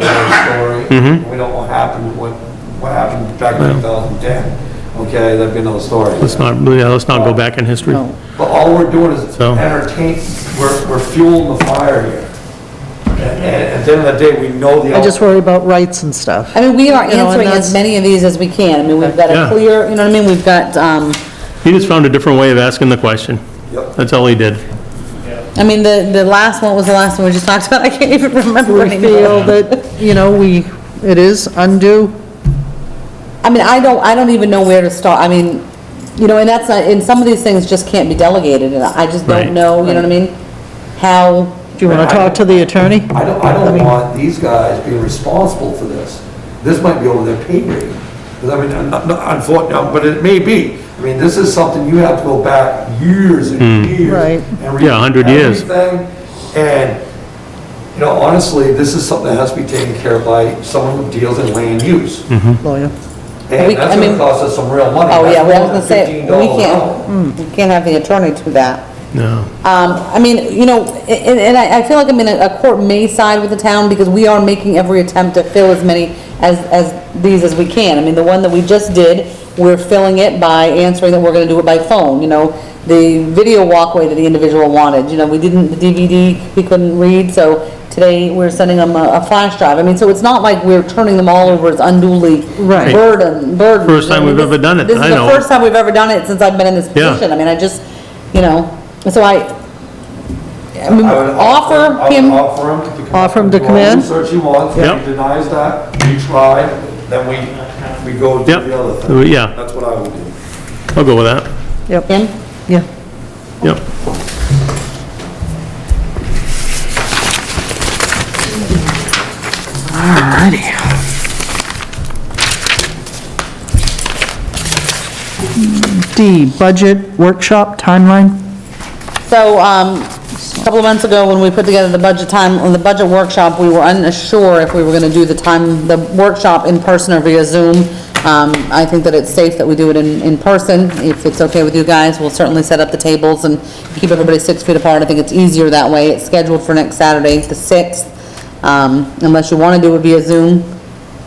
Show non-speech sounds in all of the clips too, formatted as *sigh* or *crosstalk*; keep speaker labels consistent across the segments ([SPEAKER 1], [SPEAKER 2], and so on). [SPEAKER 1] Mm-hmm.
[SPEAKER 2] don't know what happened, what, what happened back in 2010. Okay, that'd be another story.
[SPEAKER 1] Let's not, yeah, let's not go back in history.
[SPEAKER 3] No.
[SPEAKER 2] But all we're doing is
[SPEAKER 1] So-
[SPEAKER 2] entertain, we're, we're fueling the fire here. And, and at the end of the day, we know the.
[SPEAKER 3] I just worry about rights and stuff.
[SPEAKER 4] I mean, we are
[SPEAKER 3] You know, and
[SPEAKER 4] answering as
[SPEAKER 3] that's-
[SPEAKER 4] many of these as we can. I mean, we've got
[SPEAKER 1] Yeah.
[SPEAKER 4] a clear, you know what I mean? We've got, um,
[SPEAKER 1] He just found a different way of asking the question.
[SPEAKER 2] Yep.
[SPEAKER 1] That's all he did.
[SPEAKER 4] I mean, the, the last one was the last one we just *laughs* talked about. I can't even remember
[SPEAKER 3] We
[SPEAKER 4] anymore.
[SPEAKER 3] feel that, you know, we, it is undue,
[SPEAKER 4] I mean, I don't, I don't even know where to start. I mean, you know, and that's, not- and some of these things just can't be delegated and I just
[SPEAKER 1] Right.
[SPEAKER 4] don't know, you know what I mean? How,
[SPEAKER 3] do you want to talk to the attorney?
[SPEAKER 2] I don't, I don't want these guys being responsible for this. This might be over their pay grade. 'Cause I mean, unfortunately, um, but it may be. I mean, this is something you have to go back years and years.
[SPEAKER 3] Right.
[SPEAKER 2] and read
[SPEAKER 1] Hmm. Yeah, 100 years.
[SPEAKER 2] everything. And, you know, honestly, this is something that has to be taken care of by someone who deals in land use.
[SPEAKER 1] Mm-hmm.
[SPEAKER 3] Lawyer.
[SPEAKER 2] And
[SPEAKER 4] We-
[SPEAKER 2] that's
[SPEAKER 4] I
[SPEAKER 2] gonna
[SPEAKER 4] mean-
[SPEAKER 2] cost us some real money.
[SPEAKER 4] oh yeah, well, I was
[SPEAKER 2] That's
[SPEAKER 4] gonna say,
[SPEAKER 2] $15
[SPEAKER 4] we
[SPEAKER 2] an hour.
[SPEAKER 4] can't, we can't have the attorney do that.
[SPEAKER 1] No.
[SPEAKER 4] Um, I mean, you know, a- and, and I, I feel like, I mean, a court may side with the town because we are making every attempt to fill as many as, as these as we can. I mean, the one that we just did, we're filling it by answering that we're gonna do it by phone, you know? The video walkway that the individual wanted, you know, we didn't, the DVD, he couldn't read, so today we're sending him a, a flash drive. I mean, so it's not like we're turning them all over as unduly
[SPEAKER 3] Right.
[SPEAKER 4] burden, burden.
[SPEAKER 1] First time we've ever done it,
[SPEAKER 4] This is
[SPEAKER 1] I know.
[SPEAKER 4] the first time we've ever done it since I've been in this
[SPEAKER 1] Yeah.
[SPEAKER 4] position. I mean, I just, you know, so I, I mean,
[SPEAKER 2] I would
[SPEAKER 4] offer
[SPEAKER 2] I
[SPEAKER 4] him,
[SPEAKER 2] would offer him to come.
[SPEAKER 3] Offer him to
[SPEAKER 2] do
[SPEAKER 3] come
[SPEAKER 2] all the
[SPEAKER 3] in?
[SPEAKER 2] Research he wants, if
[SPEAKER 1] Yep.
[SPEAKER 2] he denies that, we try, then we, we go to
[SPEAKER 1] Yep.
[SPEAKER 2] the other thing.
[SPEAKER 1] Yeah.
[SPEAKER 2] That's what I would do.
[SPEAKER 1] I'll go with that.
[SPEAKER 3] Yep,
[SPEAKER 4] him,
[SPEAKER 3] yeah.
[SPEAKER 1] Yep.
[SPEAKER 3] D, budget workshop timeline?
[SPEAKER 4] so, um, a couple of months ago, when we put together the budget time, on the budget workshop, we were unsure if we were gonna do the time, the workshop in person or via Zoom. Um, I think that it's safe that we do it in, in person, if it's okay with you guys, we'll certainly set up the tables and keep everybody six feet apart, I think it's easier that way, it's scheduled for next Saturday, the sixth. Um, unless you wanna do it via Zoom,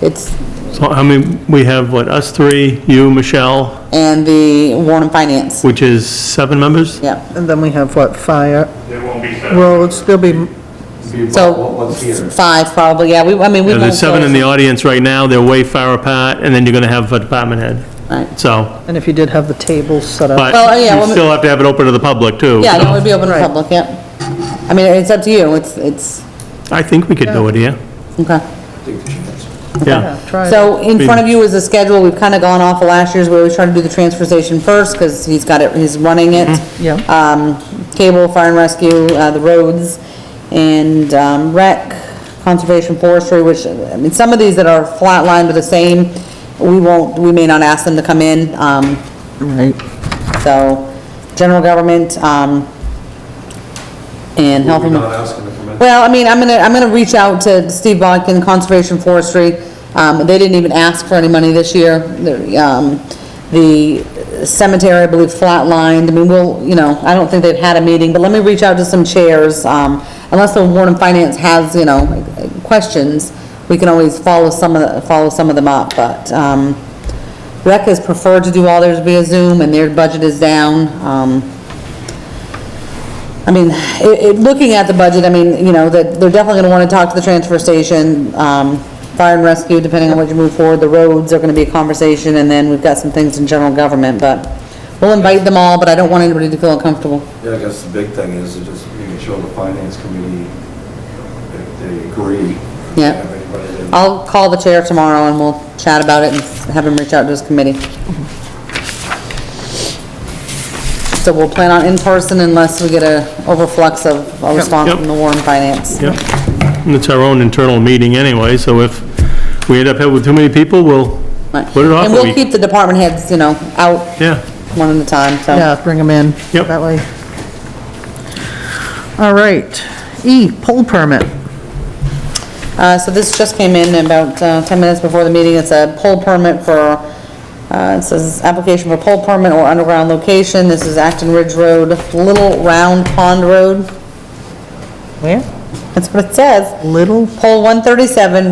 [SPEAKER 4] it's,
[SPEAKER 1] So, I mean, we have, what, us three, you, Michelle,
[SPEAKER 4] and the Warren Finance,
[SPEAKER 1] which is seven members?
[SPEAKER 4] yeah.
[SPEAKER 3] And then we have what, fire,
[SPEAKER 5] There won't be seven.
[SPEAKER 3] roads, there'll be,
[SPEAKER 2] Be about what-
[SPEAKER 4] So,
[SPEAKER 2] what's here.
[SPEAKER 4] five probably, yeah, we, I mean, we.
[SPEAKER 1] Yeah,
[SPEAKER 4] won't
[SPEAKER 1] There's seven
[SPEAKER 4] go-
[SPEAKER 1] in the audience right now, they're way far apart, and then you're gonna have a department head.
[SPEAKER 4] Right.
[SPEAKER 1] So,
[SPEAKER 3] and if you did have the tables set up.
[SPEAKER 1] but
[SPEAKER 4] Well, yeah,
[SPEAKER 1] you
[SPEAKER 4] well,
[SPEAKER 1] still have to have it open to the public, too.
[SPEAKER 4] Yeah,
[SPEAKER 1] so
[SPEAKER 4] no, it would be open to the
[SPEAKER 3] Right.
[SPEAKER 4] public, yeah. I mean, it's up to you, it's, it's,
[SPEAKER 1] I think we could do it here.
[SPEAKER 4] okay.
[SPEAKER 2] Take the chance.
[SPEAKER 1] Yeah.
[SPEAKER 3] Try it.
[SPEAKER 4] So in front of you is the schedule, we've kind of gone off of last year's, we always try to do the transfer station first, because he's got it, he's running it.
[SPEAKER 1] Mm-hmm.
[SPEAKER 3] Yeah.
[SPEAKER 4] Um, cable, fire and rescue, uh, the roads, and, um, rec, conservation forestry, which, I mean, some of these that are flatlined are the same, we won't, we may not ask them to come in, um,
[SPEAKER 3] Right.
[SPEAKER 4] so, general government, um, and health
[SPEAKER 2] We're
[SPEAKER 4] and...
[SPEAKER 2] not asking to come in.
[SPEAKER 4] Well, I mean, I'm gonna, I'm gonna reach out to Steve Bodkin, Conservation Forestry. Um, they didn't even ask for any money this year. The, um, the cemetery, I believe, flatlined. I mean, we'll, you know, I don't think they've had a meeting, but let me reach out to some chairs. Um, unless the Warren Finance has, you know, questions, we can always follow some of, the- follow some of them up, but, um, rec has preferred to do all theirs via Zoom and their budget is down. Um, I mean, it, it, looking at the budget, I mean, you know, that they're definitely gonna wanna talk to the transfer station, um, fire and rescue, depending on what you move forward, the roads are gonna be a conversation, and then we've got some things in general government, but we'll invite them all, but I don't want anybody to feel uncomfortable.
[SPEAKER 2] Yeah, I guess the big thing is to just making sure the finance committee, if they agree.
[SPEAKER 4] Yeah.
[SPEAKER 2] Have anybody that-
[SPEAKER 4] I'll call the chair tomorrow and we'll chat about it and have him reach out to his committee. So we'll plan on in-person unless we get a overflux of a response
[SPEAKER 1] Yep.
[SPEAKER 4] from the Warren Finance.
[SPEAKER 1] Yep. And it's our own internal meeting anyway, so if we end up with too many people, we'll
[SPEAKER 4] Right.
[SPEAKER 1] put it off
[SPEAKER 4] And
[SPEAKER 1] a
[SPEAKER 4] we'll
[SPEAKER 1] week.
[SPEAKER 4] keep the department heads, you know, out
[SPEAKER 1] Yeah.
[SPEAKER 4] one at a time, so.
[SPEAKER 3] Yeah, bring them in.
[SPEAKER 1] Yep.
[SPEAKER 3] That way. All right. E, poll permit.
[SPEAKER 4] Uh, so this just came in about, uh, ten minutes before the meeting, it's a pole permit for, uh, it says, application for pole permit or underground location, this is Acton Ridge Road, Little Round Pond Road,
[SPEAKER 3] Where?
[SPEAKER 4] that's what it says.
[SPEAKER 3] Little
[SPEAKER 4] Pole one thirty-seven,